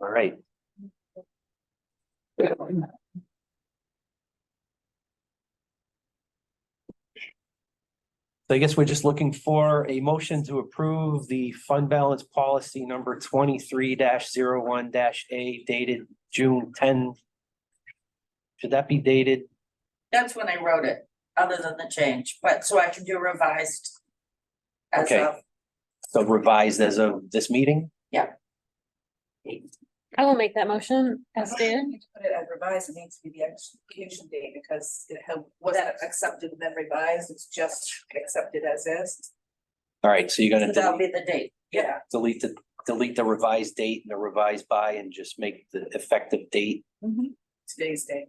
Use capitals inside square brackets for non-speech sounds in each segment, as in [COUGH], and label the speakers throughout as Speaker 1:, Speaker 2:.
Speaker 1: All right. So I guess we're just looking for a motion to approve the fund balance policy number twenty-three one A dated June ten. Should that be dated?
Speaker 2: That's when I wrote it, other than the change, but so I can do revised. As
Speaker 1: Okay.
Speaker 2: of,
Speaker 1: So revised as of this meeting?
Speaker 3: I will make that motion as
Speaker 4: You
Speaker 3: stated.
Speaker 4: need to Put it as revised, it needs to be the execution date because it had- wasn't accepted and then revised, it's just accepted as is.
Speaker 1: All right, so you're
Speaker 2: so
Speaker 1: gonna
Speaker 2: that'll
Speaker 1: delete-
Speaker 2: be the date,
Speaker 4: Yeah,
Speaker 1: delete the, delete the revised date and the revised by and just make the effective date.
Speaker 4: today's date.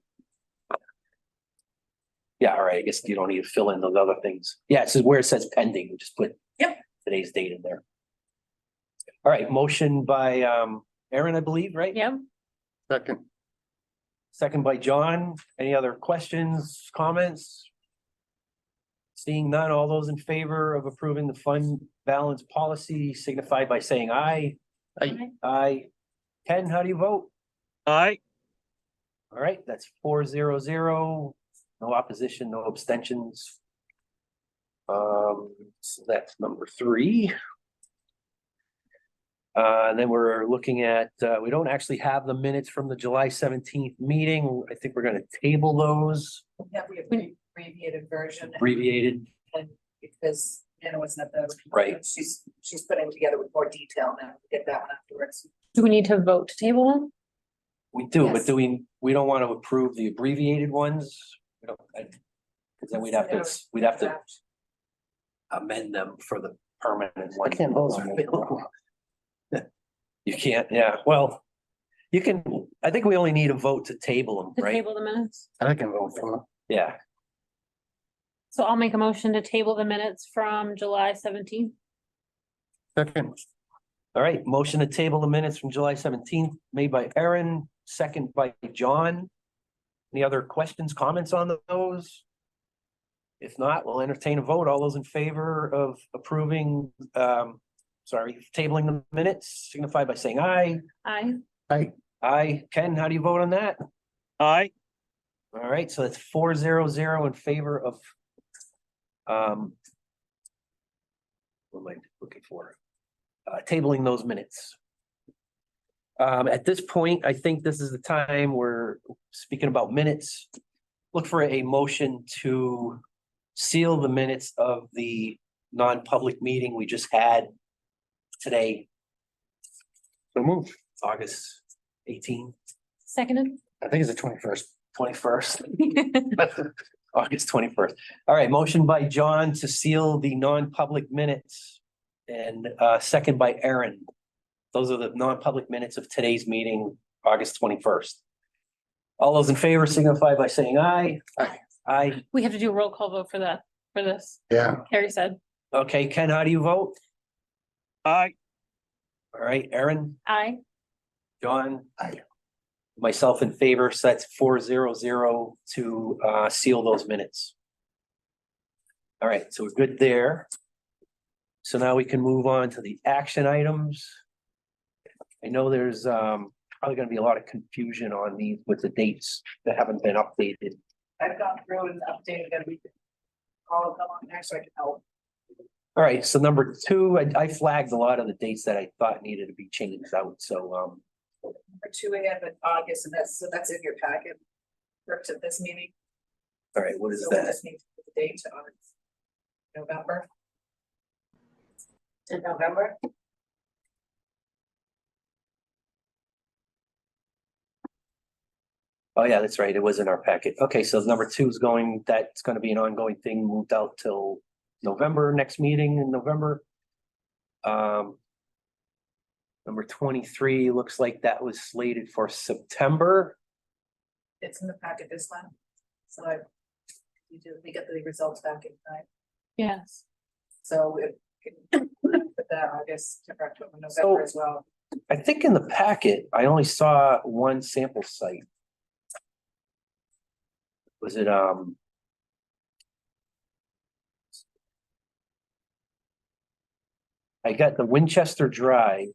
Speaker 1: Yeah, all right, I guess you don't need to fill in those other things. Yeah, it says where it says pending, just put.
Speaker 2: Yep.
Speaker 1: Today's date in there. All right, motion by um Aaron, I believe, right?
Speaker 3: Yeah,
Speaker 5: Second,
Speaker 1: Second by John. Any other questions, comments? Seeing none, all those in favor of approving the fund balance policy signify by saying aye.
Speaker 5: Aye.
Speaker 1: Aye. Ken, how do you vote?
Speaker 6: Aye,
Speaker 1: All right, that's four zero zero. No opposition, no abstentions. Um, so that's number three. Uh, and then we're looking at, uh, we don't actually have the minutes from the July seventeenth meeting. I think we're gonna table those
Speaker 4: Yeah, we have the abbreviated version
Speaker 1: abbreviated.
Speaker 4: because Anna wasn't at the.
Speaker 1: Right.
Speaker 4: She's, she's putting it together with more detail now, get that one afterwards.
Speaker 3: do we need to vote to table one?
Speaker 1: We do, but
Speaker 4: Yes.
Speaker 1: do we, we don't want to approve the abbreviated ones? We don't, I, cause then we'd have to, we'd have to amend them for the permanent one.
Speaker 5: can't those are available.
Speaker 1: You can't, yeah, well, you can, I think we only need a vote to table
Speaker 3: To
Speaker 1: them, right?
Speaker 3: table the minutes?
Speaker 5: I can vote for
Speaker 1: Yeah,
Speaker 3: So I'll make a motion to table the minutes from July seventeenth.
Speaker 5: it. Second,
Speaker 1: all right, motion to table the minutes from July seventeenth, made by Aaron, second by John. Any other questions, comments on those? If not, we'll entertain a vote. All those in favor of approving, um, sorry, tabling the minutes signify by saying aye.
Speaker 3: Aye.
Speaker 5: I,
Speaker 1: Aye. Ken, how do you vote on that?
Speaker 6: aye,
Speaker 1: All right, so that's four zero zero in favor of. Um. What am I looking for? Uh, tabling those minutes. Um, at this point, I think this is the time we're speaking about minutes. Look for a motion to seal the minutes of the non-public meeting we just had today,
Speaker 5: so move.
Speaker 1: August 18th,
Speaker 3: Seconded.
Speaker 5: I think it's the twenty-first.
Speaker 1: 21st. [LAUGHS] August twenty-first. All right, motion by John to seal the non-public minutes and uh second by Aaron. Those are the non-public minutes of today's meeting, August twenty-first. All those in favor signify by saying aye.
Speaker 5: Aye.
Speaker 1: Aye.
Speaker 3: We have to do a roll call vote for that, for this,
Speaker 5: Yeah,
Speaker 3: Carrie said.
Speaker 1: Okay, Ken, how do you vote?
Speaker 6: aye,
Speaker 1: All right, Aaron,
Speaker 3: Aye.
Speaker 1: John?
Speaker 5: Aye.
Speaker 1: Myself in favor, so that's four zero zero to uh seal those minutes. All right, so we're good there. So now we can move on to the action items. I know there's um probably gonna be a lot of confusion on these with the dates that haven't been updated.
Speaker 4: I've gone through and updated everything. All of them on there, so I can help.
Speaker 1: All right, so number two, I I flagged a lot of the dates that I thought needed to be changed out, so um
Speaker 4: Number two, we have in August, and that's, so that's in your packet. For to this meeting.
Speaker 1: all right, what is
Speaker 4: So we
Speaker 1: that?
Speaker 4: just need to put the date on November.
Speaker 2: in November,
Speaker 1: Oh, yeah, that's right. It was in our packet. Okay, so number two is going, that's gonna be an ongoing thing moved out till November, next meeting in November. Um. Number twenty-three, looks like that was slated for September.
Speaker 4: It's in the packet this time. So I. We do, we get the results back in time,
Speaker 3: Yes.
Speaker 4: so it can put that August, September, October, November as well.
Speaker 1: I think in the packet, I only saw one sample site. Was it, um? I got the Winchester Drive.